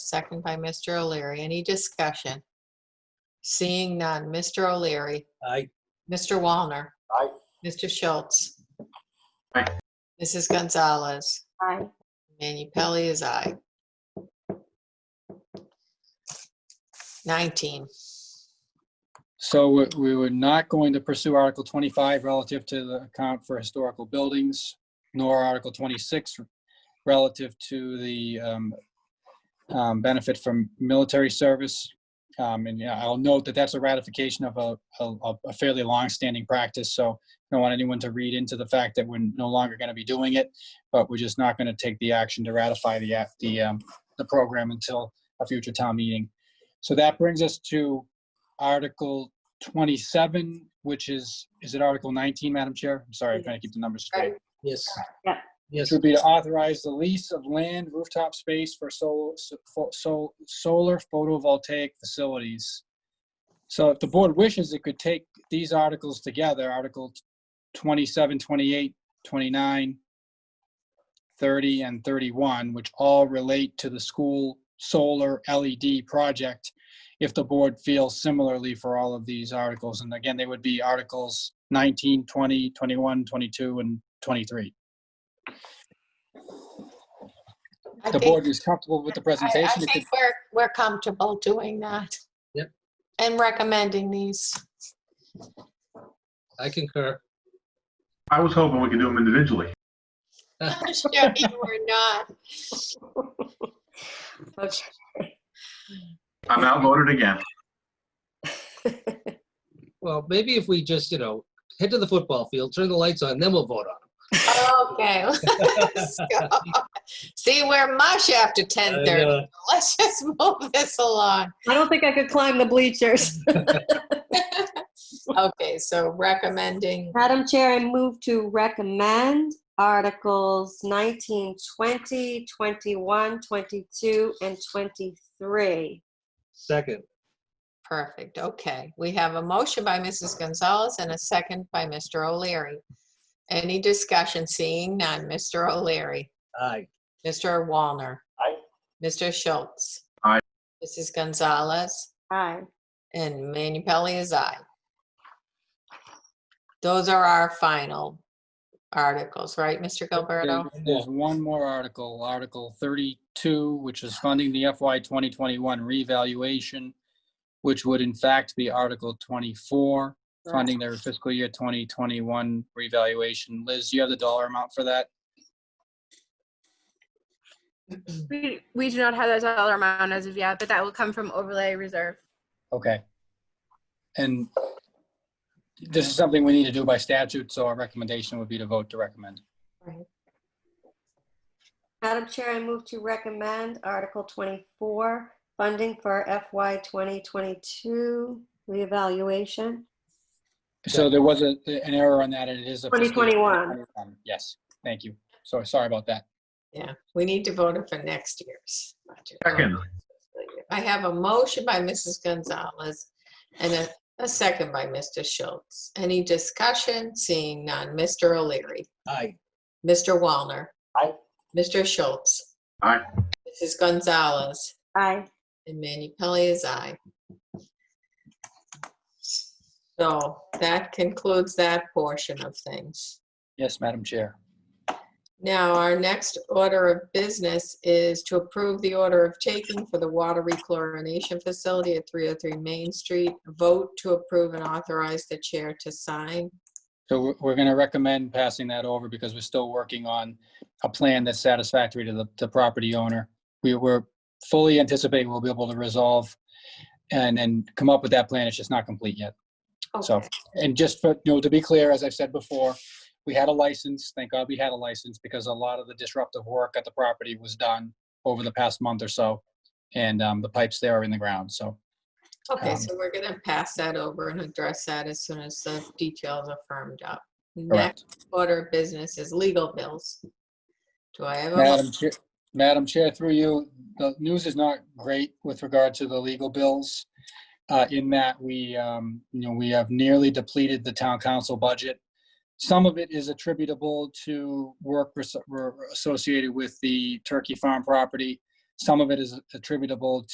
second by Mr. O'Leary. Any discussion? Seeing none. Mr. O'Leary. Aye. Mr. Wallner. Aye. Mr. Schultz. Aye. Mrs. Gonzalez. Aye. Manu Pelley is aye. 19. So we- we were not going to pursue Article 25 relative to the account for historical buildings, nor Article 26 relative to the um, um, benefit from military service. Um, And yeah, I'll note that that's a ratification of a- a a fairly long-standing practice, so I don't want anyone to read into the fact that we're no longer going to be doing it, but we're just not going to take the action to ratify the, act- the, um, the program until a future town meeting. So that brings us to Article 27, which is, is it Article 19, Madam Chair? I'm sorry, I'm trying to keep the numbers straight. Yes. Yeah. Yes. This would be to authorize the lease of land rooftop space for solar, solar photovoltaic facilities. So if the board wishes, it could take these articles together, Article 27, 28, 29, 30, and 31, which all relate to the school solar LED project, if the board feels similarly for all of these articles. And again, they would be Articles 19, 20, 21, 22, and 23. I The think- board is comfortable with I- the I presentation. It could- think we're, we're comfortable doing that. Yep. And recommending these. I concur. I was hoping we could do them individually. Sure, you were not. Okay. I'm outvoted again. Well, maybe if we just, you know, head to the football field, turn the lights on, then we'll vote on Okay. let's go. See, we're mush after them. 10:30. Let's just move this along. I don't think I could climb the bleachers. Okay, so recommending, Madam Chair, I move to recommend Articles 19, 20, 21, 22, and 23. Second. perfect, okay. We have a motion by Mrs. Gonzalez and a second by Mr. O'Leary. Any discussion? Seeing none. Mr. O'Leary. Aye. Mr. Walner. Aye. Mr. Schultz. Aye. Mrs. Gonzalez Aye. and Manu Pelley is aye. Those are our final articles, right, Mr. Gilberto? There's- There's one more article, Article 32, which is funding the FY 2021 revaluation, which would in fact be Article 24, funding their fiscal year 2021 revaluation. Liz, do you have the dollar amount for that? We, we do not have that dollar amount as of yet, but that will come from overlay reserve. Okay. And this is something we need to do by statute, so our recommendation would be to vote to recommend. Madam Chair, I move to recommend Article 24, funding for FY 2022 reevaluation. So there was a- an error on that, and it is a. fiscal year 2021. Yes, thank you. So sorry about that. Yeah, we need to vote it for next year's. budget. Second. I have a motion by Mrs. Gonzalez and a, a second by Mr. Schultz. Any discussion? Seeing none. Mr. O'Leary. Aye. Mr. Walner. Aye. Mr. Schultz. Aye. Mrs. Gonzalez. Aye. And Manu Pelley is aye. So that concludes that portion of things. Yes, Madam Chair. Now, our next order of business is to approve the order of taking for the water rechlorination facility at 303 Main Street. Vote to approve and authorize the chair to sign. So we're, we're gonna recommend passing that over because we're still working on a plan that's satisfactory to the, the property owner. We were fully anticipating we'll be able to resolve and, and come up with that plan. It's just not complete yet. So- Okay. And just for, you know, to be clear, as I've said before, we had a license. Thank God we had a license because a lot of the disruptive work at the property was done over the past month or so. And, um, the pipes there are in the ground, so. Okay, um, so we're going to pass that over and address that as soon as the details are firmed up. Correct. Next order of business is legal bills. Do I have a? mo- Madam Chair, Madam Chair, through you, the news is not great with regard to the legal bills. uh, In that we, um, you know, we have nearly depleted the town council budget. Some of it is attributable to work res- were associated with the Turkey Farm property. Some of it is attributable